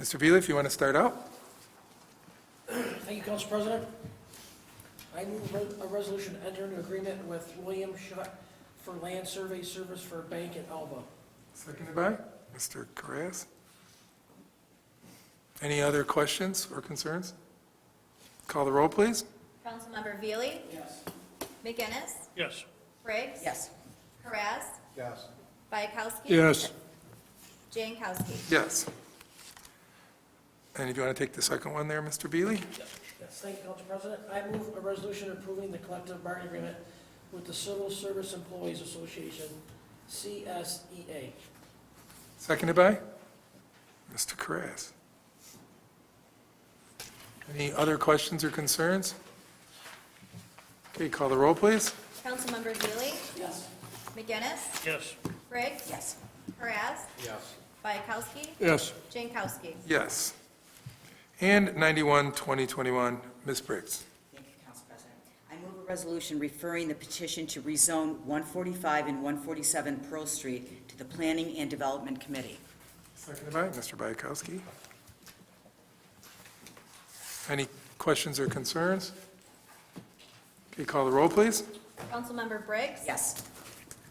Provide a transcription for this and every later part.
Mr. Veely, if you want to start out? Thank you, Council President. I move re- a resolution to enter into agreement with William Shutt for land survey service for a bank at Alba. Seconded by Mr. Carras. Any other questions or concerns? Call the roll, please. Councilmember Veely? Yes. McGinnis? Yes. Briggs? Yes. Karas? Yes. Bayakowski? Yes. Jankowski? Yes. And if you want to take the second one there, Mr. Beely? Yes, thank you, Council President. I move a resolution approving the collective bargaining agreement with the Civil Service Employees Association, E CSEA. Seconded by Mr. Carras. Any other questions or concerns? Okay, call the roll, please. Councilmember Veely? Yes. McGinnis? Yes. Briggs? Yes. Karas? Yes. Bayakowski? Yes. Jankowski? Yes. And 91, 2021, Ms. Briggs. Thank you, Council President. I move a resolution referring the petition to rezone 145 and 147 Pearl Street to the Planning and Development Committee. Seconded by Mr. Bayakowski. Any questions or concerns? Okay, call the roll, please. Councilmember Briggs? Yes.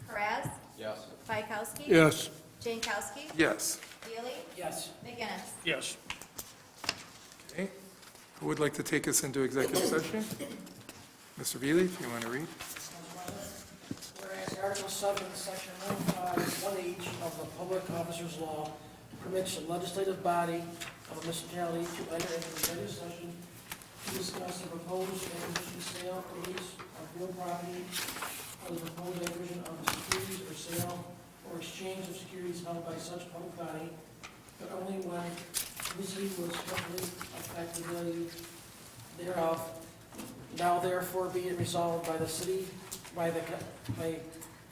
Karas? Yes. Bayakowski? Yes. Jankowski? Yes. Veely? Yes. McGinnis? Yes. Okay. Who would like to take us into executive session? Mr. Veely, if you want to read. Whereas Article 7, Section oh 1H of the Public Officers Law permits the legislative body of a municipality to enter into executive session to discuss the proposed acquisition, sale, release, of real property, or the proposed acquisition of securities or sale or exchange of securities held by such public body, but only when reasonably will strictly affect the value thereof. Now therefore be it resolved by the city, by the, co- by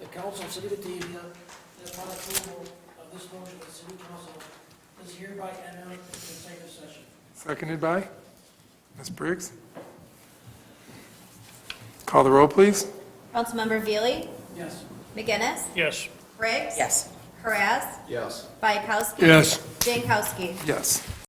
the council of City of Batavia, that upon approval of this motion, the city council is hereby entering into executive session. Seconded by Ms. Briggs. Call the roll, please. Councilmember Veely? Yes. McGinnis? Yes. Briggs? Yes. Karas? Yes. Bayakowski? Yes. Jankowski? Yes.